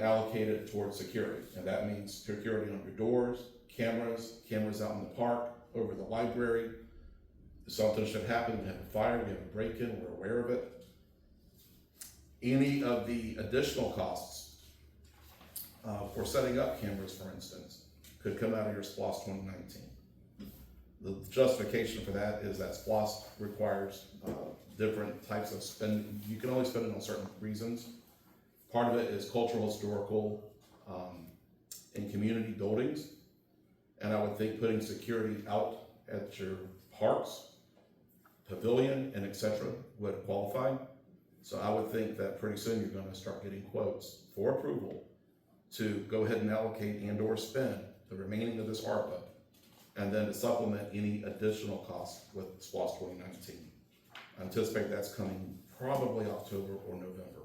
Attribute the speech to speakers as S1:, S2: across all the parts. S1: allocate it towards security. And that means security on your doors, cameras, cameras out in the park, over the library. If Something should happen, we have a fire, we have a break-in, we're aware of it. Any of the additional costs uh, for setting up cameras, for instance, could come out of your SPOS twenty nineteen. The justification for that is that SPOS requires uh, different types of spending. You can only spend it on certain reasons. Part of it is cultural, historical, um, and community buildings. And I would think putting security out at your parks, pavilion, and et cetera would qualify. So I would think that pretty soon you're gonna start getting quotes for approval to go ahead and allocate and or spend the remaining of this ARPA. And then to supplement any additional costs with SPOS twenty nineteen. I anticipate that's coming probably October or November.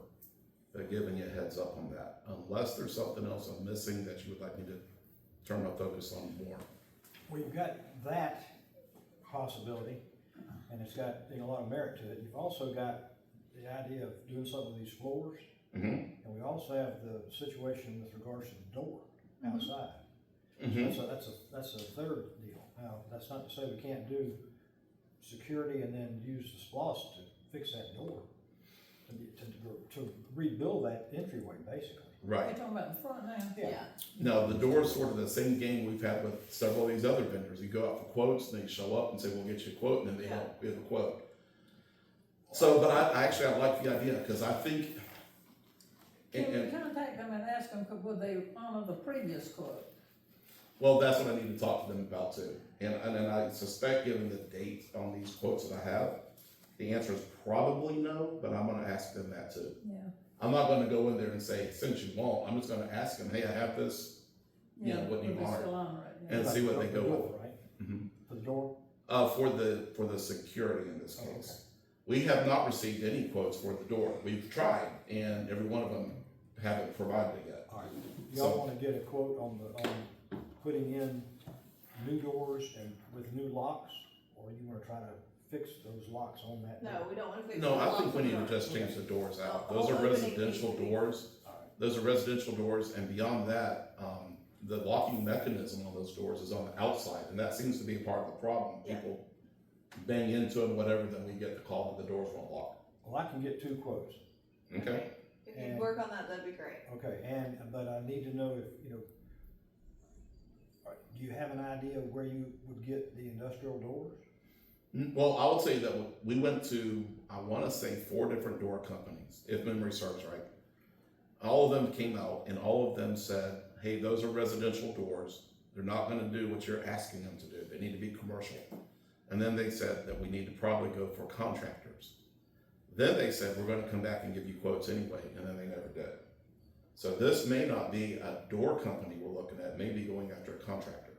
S1: They're uh, giving you a heads up on that, unless there's something else I'm missing that you would like me to turn my focus on more.
S2: We've got that possibility, and it's got, you know, a lot of merit to it. You've also got the idea of doing something with these floors,
S1: Mm-hmm.
S2: and we also have the situation with regards to the door outside.
S1: Mm-hmm.
S2: That's a, that's a, that's a third deal. Now, that's not to say we can't do security and then use the splos to fix that door, to, be- to, to rebuild that entryway, basically.
S1: Right.
S3: You're talking about in front now?
S2: Yeah.
S1: Now, the door is sort of the same game we've had with several of these other vendors. You go out for quotes, and they show up and say, we'll get you a quote, and then they don't give a quote. So, but I, I actually, I like the idea, because I think, and,
S3: Can we
S1: and,
S3: contact them and ask them, could- would they honor the previous quote?
S1: well, that's what I need to talk to them about too. And, and then I suspect, given the date on these quotes that I have, the answer is probably no, but I'm gonna ask them that too.
S3: Yeah.
S1: I'm not gonna go in there and say, since you won't, I'm just gonna ask them, hey, I have this, Yeah, what do you
S3: would they
S1: honor?
S3: still honor it? yeah.
S1: And see what they go with. Mm-hmm.
S2: Right? For the door,
S1: Uh, for the, for the security in this
S2: Oh, okay.
S1: case. We have not received any quotes for the door. We've tried and every one of them haven't provided it yet.
S2: all right.
S1: So-
S2: Y'all wanna get a quote on the, on putting in new doors and with new locks? Or you wanna try to fix those locks on that?
S4: No,
S2: door?
S4: we don't want to fix.
S1: No,
S4: the
S1: I think
S4: lock
S1: we need to
S4: door.
S1: just change the doors out.
S4: Oh,
S1: Those are
S4: opening needs to
S1: residential
S4: be-
S1: doors.
S2: All right.
S1: Those are residential doors and beyond that, um, the locking mechanism on those doors is on the outside and that seems to be a part of the problem.
S4: Yeah.
S1: People bang into them, whatever, then we get the call that the doors won't lock.
S2: Well, I can get two quotes,
S1: Okay?
S4: If you
S2: And-
S4: work on that, that'd be great.
S2: okay, and, but I need to know if, you know, all right, do you have an idea of where you would get the industrial doors?
S1: Mm, Well, I would say that we went to, I want to say, four different door companies, if memory serves right. All of them came out and all of them said, hey, those are residential doors. They're not going to do what you're asking them to do. They need to be commercial. And then they said that we need to probably go for contractors. Then they said, we're going to come back and give you quotes anyway, and then they never did. So this may not be a door company we're looking at, maybe going after a contractor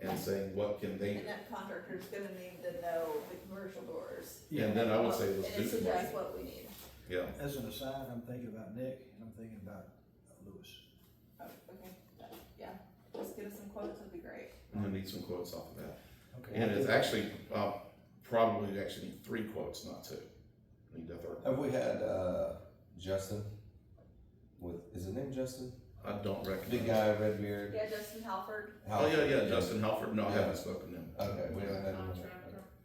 S1: and saying, what can they do?
S4: And that contractor's gonna need to know the commercial doors.
S1: And then I would say
S4: And
S1: let's do
S4: so that's
S1: commercial.
S4: what we need.
S1: Yeah.
S2: As an aside, I'm thinking about Nick, and I'm thinking about uh, Lewis.
S4: Oh, Okay, yeah, just give us some quotes, that'd be great.
S1: I'm gonna need some quotes off of that.
S2: Okay.
S1: And it's actually, uh, probably actually need three quotes, not two. Need the third.
S5: Have we had uh, Justin? With is his name Justin?
S1: I don't recognize.
S5: Big guy, red beard.
S4: Yeah, Justin Halford,
S1: Oh, yeah, yeah, Justin Halford. No, I haven't spoken to him.
S5: Okay, we haven't had him.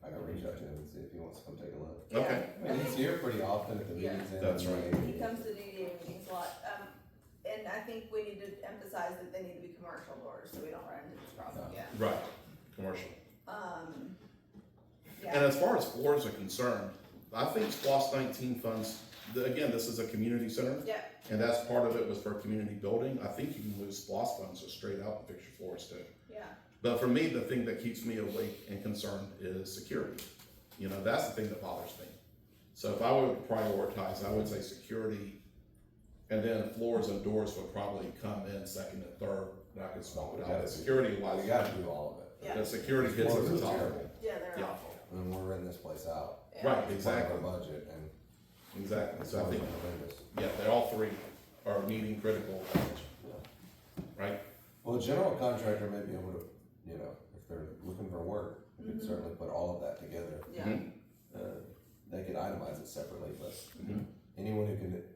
S5: I gotta reach out to him and see if he wants to come take a look.
S1: Okay,
S5: I mean, he's here pretty often at the
S4: Yeah.
S5: meetings. and-
S1: That's right.
S4: he comes to the DDA meetings a lot, um, and I think we need to emphasize that they need to be commercial doors, so we don't run into this problem
S5: No.
S4: again.
S1: right, commercial.
S4: Um,
S1: And
S4: yeah,
S1: as far as floors are concerned, I think SPOS nineteen funds, the- again, this is a community center.
S4: yeah,
S1: And that's part of it was for community building. I think you can lose SPOS funds just straight out and fix your floors too.
S4: yeah,
S1: But for me, the thing that keeps me awake and concerned is security. You know, that's the thing that bothers me. So if I would prioritize, I would say security, and then floors and doors would probably come in second and third, and I could swap it out. The security
S5: Well,
S1: wise,
S5: we gotta do all of it.
S4: Yeah.
S1: the security hits at the top.
S4: yeah, they're
S1: Yeah.
S4: awful.
S5: I mean, we're renting this place out.
S4: Yeah.
S1: Right,
S5: It's part of
S1: exactly,
S5: Our budget and
S1: exactly. So I think,
S5: horrendous.
S1: yeah, they all three are needing critical attention. Right?
S5: Well, a general contractor may be able to, you know, if they're looking for work, we could
S4: Mhm.
S5: certainly put all of that together.
S4: Yeah,
S1: Mhm.
S5: Uh, they could itemize it separately, but
S1: Mhm.
S5: anyone who can